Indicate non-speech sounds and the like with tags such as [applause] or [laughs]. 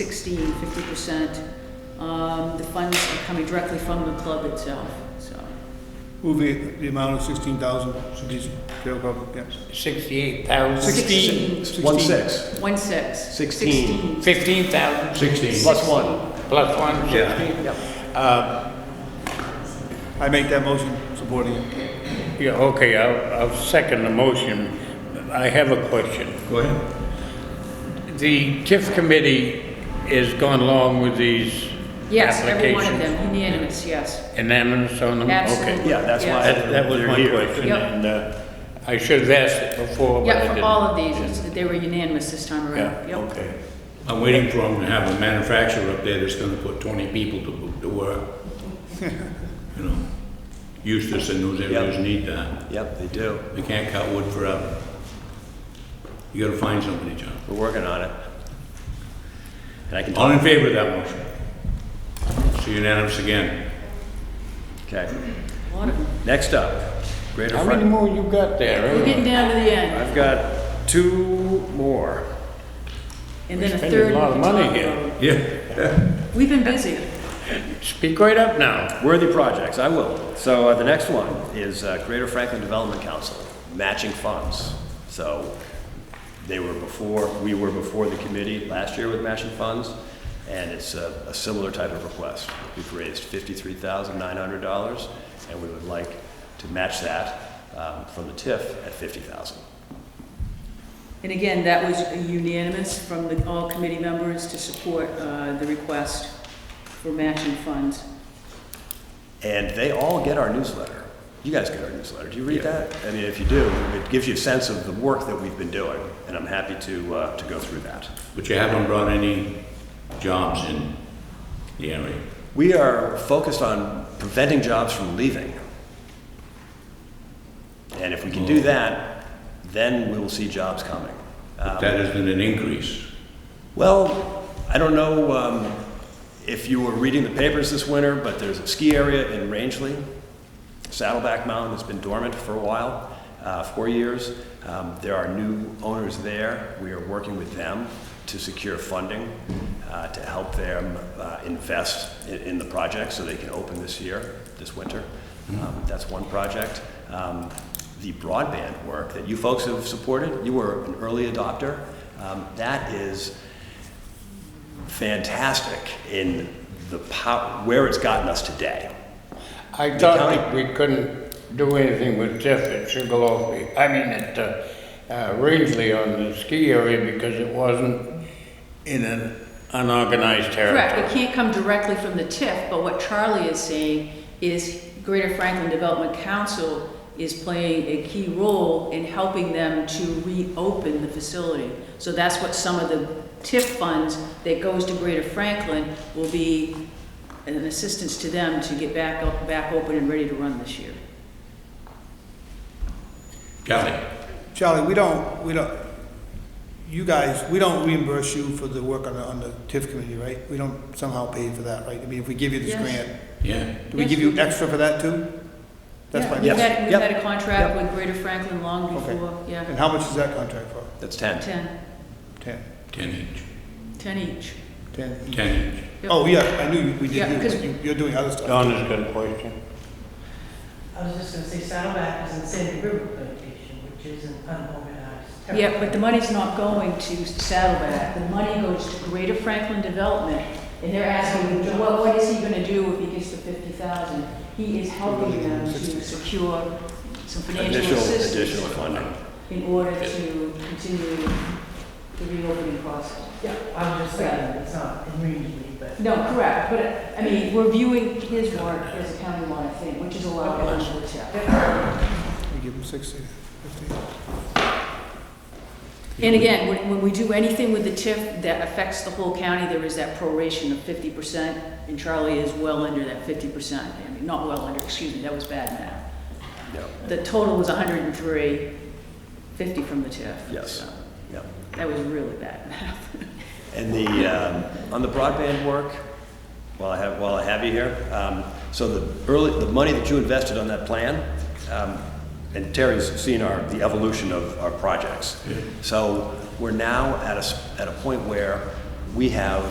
16, 50%. Um, The funds are coming directly from the club itself, so. Move the, the amount of sixteen thousand to these jail public, yes. Sixty-eight thousand, Sixteen. One six. One six. Sixteen. fifteen thousand, Sixteen. Plus one. plus one sixteen. I make that motion, supporting it. Yeah, okay, I'll, I'll second the motion. I have a question. Go ahead. The TIF committee has gone along with these Yes, every one of applications? them, unanimous, yes. Unanimous on them? Absolutely. Um, Okay. Yeah, that's why. Yes. That, that was my They're here. question, Yep. and, uh, I should have asked it before, but I Yeah, didn't. for all of these, it's- they were unanimous this time around. Yeah, Yep. okay. I'm waiting for them to have a manufacturer up there that's gonna put twenty people to, to [laughs] work. You know, Eustis and those areas Yep. need that. Yep, they do. They can't cut wood forever. You gotta find somebody, John. We're working on it. And I can All talk, in favor of that motion? It's unanimous again. okay. A lot of them. Next up, Greater How many Frontage. more you got We're there? getting down to the end, I've got two more. and then a spending a third. we lot of can money talk here. about. Yeah, We've been busy. Speak right up now. Worthy projects, I will. So uh, the next one is uh, Greater Franklin Development Council, matching funds. So they were before, we were before the committee last year with matching funds, and it's a a similar type of request. We've raised $53,900, and we would like to match that um, from the TIF at $50,000. And again, that was unanimous from the, all committee members to support uh, the request for matching funds. And they all get our newsletter. You guys get our newsletter. Do you read that? I mean, if you do, it gives you a sense of the work that we've been doing, and I'm happy to, uh, to go through that. but you haven't brought any jobs in the area. We are focused on preventing jobs from leaving. And if we can do that, then we will see jobs coming. But that isn't an increase. Well, I don't know um, if you were reading the papers this winter, but there's a ski area in Rangeley. Saddleback Mountain has been dormant for a while, uh, four years. Um, There are new owners there. We are working with them to secure funding uh, to help them uh, invest in- in the project so they can open this year, this winter. Um, That's one project. Um, The broadband work that you folks have supported, you were an early adopter. Um, That is fantastic in the pow- where it's gotten us today. I thought that we couldn't do anything with TIF at Sugarloaf, I mean, at, uh, uh, Rangeley on the ski area because it wasn't in an unorganized Correct, territory. it can't come directly from the TIF, but what Charlie is saying is Greater Franklin Development Council is playing a key role in helping them to reopen the facility. So that's what some of the TIF funds that goes to Greater Franklin will be an assistance to them to get back, up, back open and ready to run this year. Kelly? Charlie, we don't, we don't, you guys, we don't reimburse you for the work on the, on the TIF committee, right? We don't somehow pay for that, right? I mean, if we give you this Yes. grant, Yeah. do we Yes, give we you do. extra for that too? That's Yeah, fine. We've Yes. had, we've Yep. had a contract Yep. with Greater Franklin long Okay. before, And yeah, how much is that contract for? That's 10. 10, Ten. Ten inch, 10 each. Ten. each. ten inch. Yep. Oh, yeah, I knew we Yeah, did, 'cause- you, You- you're doing other stuff. Donna's got a question. I was just gonna say Saddleback is in Sandy River Plantation, which is an unorganized territory. Yeah, but the money's not going to Saddleback. The money goes to Greater Franklin Development. And they're asking, what, what is he gonna do if he gets the fifty thousand? He is helping them to secure some financial Additional, additional assistance funding. in order to continue the reopening process. Yeah, I'm just saying, it's not in Greenlee, but. No, correct, but, I mean, we're viewing his work as a countywide thing, which is a lot of what it's at. We give them sixty, fifty. And again, when, when we do anything with the TIF that affects the whole county, there is that proration of fifty percent, and Charlie is well under that fifty percent. I mean, not well under, excuse me, that was bad math. Yep, The total was 103, 50 from the TIF. yes, So, yep. That was really bad math. [laughs] And the, um, on the broadband work, while I have, while I have you here, um, so the early, the money that you invested on that plan, um, and Terry's seen our, the evolution of our projects. So we're now at a, s- at a point where we have